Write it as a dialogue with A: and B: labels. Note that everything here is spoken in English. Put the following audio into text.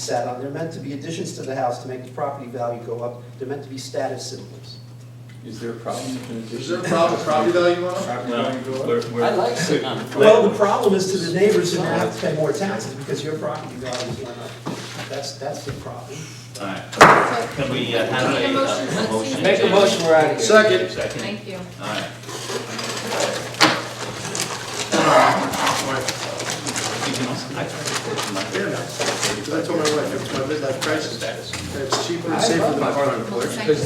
A: sat on, they're meant to be additions to the house to make the property value go up, they're meant to be status symbols.
B: Is there a problem with an addition?
C: Is there a problem with property value on it?
B: Property value go up?
D: I like sitting on the
A: Well, the problem is to the neighbors who have to pay more taxes because your property value went up. That's, that's the problem.
E: Alright,
F: So,
E: can we uh, have
F: Need a
E: a
F: motion,
E: uh,
F: let's see.
E: motion?
F: Make a motion,
D: we're out of
C: Second,
E: Second,
F: Thank you.
E: alright.
C: fair enough. That's what my wife, it's my midlife crisis. It's cheaper and safer than a part of